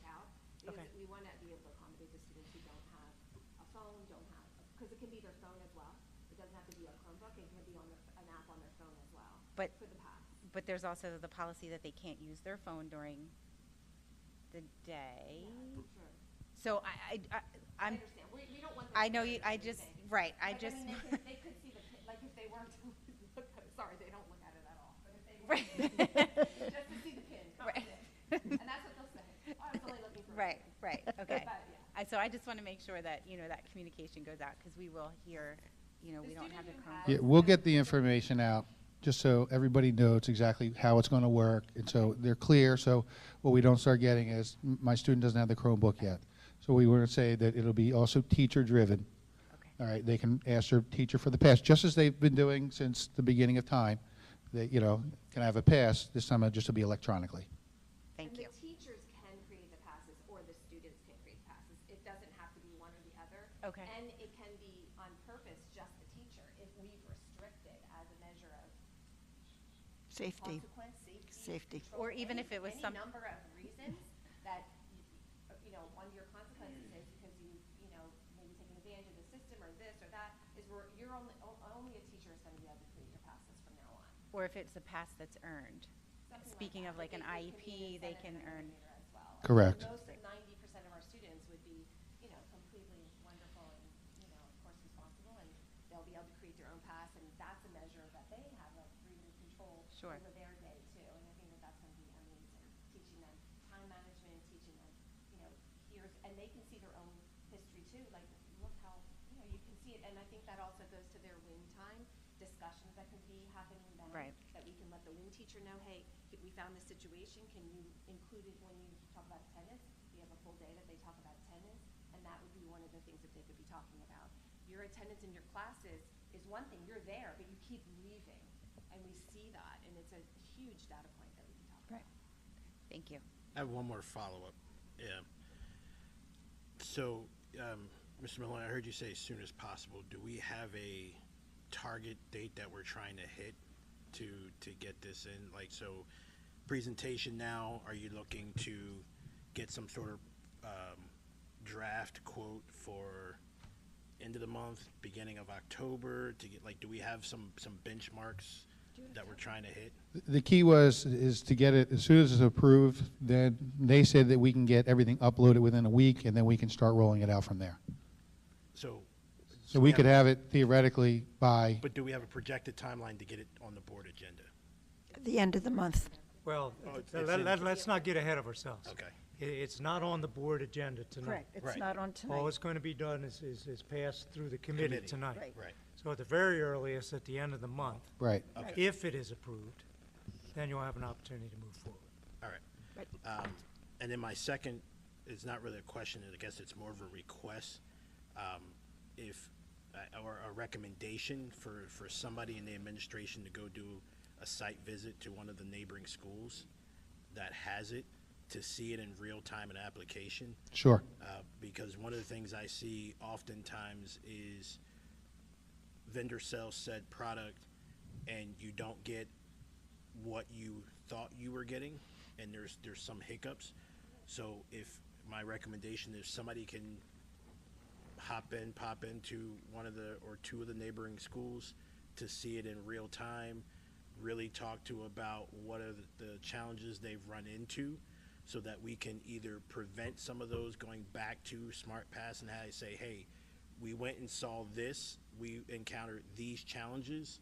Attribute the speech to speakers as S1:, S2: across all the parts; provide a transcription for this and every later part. S1: Because
S2: Okay.
S1: we want to be able to accommodate the students who don't have a phone, don't have, because it can be their phone as well. It doesn't have to be a Chromebook, it can be on the- an app on their phone as well.
S3: But-
S1: For the pass.
S3: But there's also the policy that they can't use their phone during the day.
S1: Yeah, sure.
S3: So I, I, I,
S1: I
S3: I'm,
S1: understand. We, we don't want. them
S3: I know
S1: to
S3: you,
S1: hear
S3: I just,
S1: anything.
S3: right, I
S1: But,
S3: just.
S1: mean, they could- They could see the, pi- like, if they were to look at, sorry, they don't look at it at all, but if they were.
S3: Right.
S1: to, Just to see the pin,
S3: Right.
S1: confident. And that's what they'll say. Oh, I was only looking for. a
S3: Right,
S1: pin."
S3: right, okay.
S1: But, yeah.
S3: I, so I just want to make sure that, you know, that communication goes out because we will hear, you know,
S1: The
S3: we don't have the
S1: student who
S3: Chromebook.
S1: has-
S4: Yeah, we'll get the information out, just so everybody knows exactly how it's going to work, and so they're clear, so what we don't start getting is, "M- my student doesn't have the Chromebook yet. So we want to say that it'll be also teacher-driven.
S3: Okay.
S4: All right, they can ask their teacher for the pass, just as they've been doing since the beginning of time, that, you know, can I have a pass, this time it just will be electronically.
S3: Thank you.
S1: And the teachers can create the passes, or the students can create the passes. It doesn't have to be one or the other.
S3: Okay.
S1: And it can be on purpose, just the teacher, if we've restricted as a measure of
S2: Safety.
S1: consequence, safety.
S2: Safety.
S1: control,
S3: Or even
S1: any-
S3: if it was
S1: any
S3: some-
S1: number of reasons that, you- you know, one of your consequences is because you, you know, maybe taking advantage of the system or this or that, is where you're only, o- only a teacher is gonna be able to create your passes from now on.
S3: Or if it's a pass that's earned.
S1: Something
S3: Speaking
S1: that.
S3: of like
S1: If
S3: an
S1: they- it could be
S3: IEP,
S1: an
S3: they
S1: incentive
S3: can
S1: and a
S3: earn.
S1: motivator as well. And
S4: Correct.
S1: Most of ninety percent of our students would be, you know, completely wonderful and, you know, of course responsible, and they'll be able to create their own pass, and that's a measure that they have of freedom and control
S3: Sure.
S1: over their day too, and I think that that's gonna be amazing, teaching them time management, teaching them, you know, here's, and they can see their own history too, like, look how, you know, you can see it, and I think that also goes to their win time discussions that can be happening then
S3: Right.
S1: that we can let the wing teacher know, hey, if we found this situation, can you include it when you talk about attendance? We have a full day that they talk about attendance, and that would be one of the things that they could be talking about. Your attendance in your classes is one thing, you're there, but you keep leaving, and we see that, and it's a huge data point that we can talk about.
S3: Thank you.
S5: I have one more follow-up. Yeah. So, um, Mr. Maloney, I heard you say as soon as possible. Do we have a target date that we're trying to hit to, to get this in? Like, so presentation now, are you looking to get some sort of, um, draft quote for end of the month, beginning of October to get, like, do we have some, some benchmarks that we're trying to hit?
S4: The key was, is to get it, as soon as it's approved, then they said that we can get everything uploaded within a week, and then we can start rolling it out from there.
S5: So.
S4: So we could have
S5: have-
S4: it theoretically by,
S5: But do we have a projected timeline to get it on the board agenda?
S2: The end of the month.
S6: Well,
S5: Oh, it's-
S6: let,
S5: it's in-
S6: let- let's not get ahead of ourselves.
S5: Okay.
S6: I- it's not on the board agenda tonight.
S2: Correct, it's
S5: Right.
S2: not on
S6: All
S2: tonight.
S6: it's going to be done is, is, is passed through the committee
S5: Committee.
S6: tonight.
S2: Right.
S5: Right.
S6: So at the very earliest, at the end of the month,
S4: right.
S5: Okay,
S6: if it is approved, then you'll have an opportunity to move forward.
S5: all right. Um, And then my second is not really a question, I guess it's more of a request. um, If, uh, or a recommendation for, for somebody in the administration to go do a site visit to one of the neighboring schools that has it, to see it in real time and application.
S4: Sure.
S5: uh, because one of the things I see oftentimes is vendor sells said product and you don't get what you thought you were getting and there's there's some hiccups. So if my recommendation is somebody can hop in, pop into one of the or two of the neighboring schools to see it in real time, really talk to about what are the- the challenges they've run into so that we can either prevent some of those going back to Smart Pass and how they say, hey, we went and saw this, we encountered these challenges.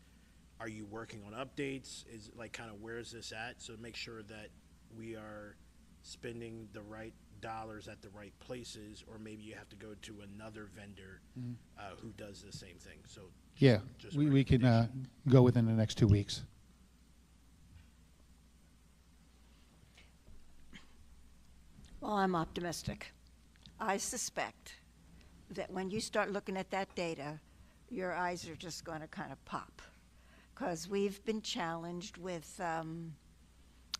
S5: Are you working on updates? Is like kind of where's this at? So make sure that we are spending the right dollars at the right places, or maybe you have to go to another vendor uh, who does the same thing. So
S4: Yeah,
S5: Just
S4: we, we can, uh, go within the next two weeks.
S2: Well, I'm optimistic. I suspect that when you start looking at that data, your eyes are just going to kind of pop. Because we've been challenged with um,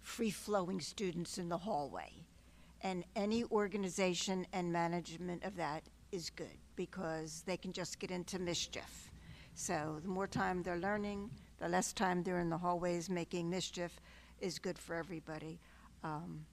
S2: free flowing students in the hallway. And any organization and management of that is good because they can just get into mischief. So the more time they're learning, the less time they're in the hallways making mischief is good for everybody. Um,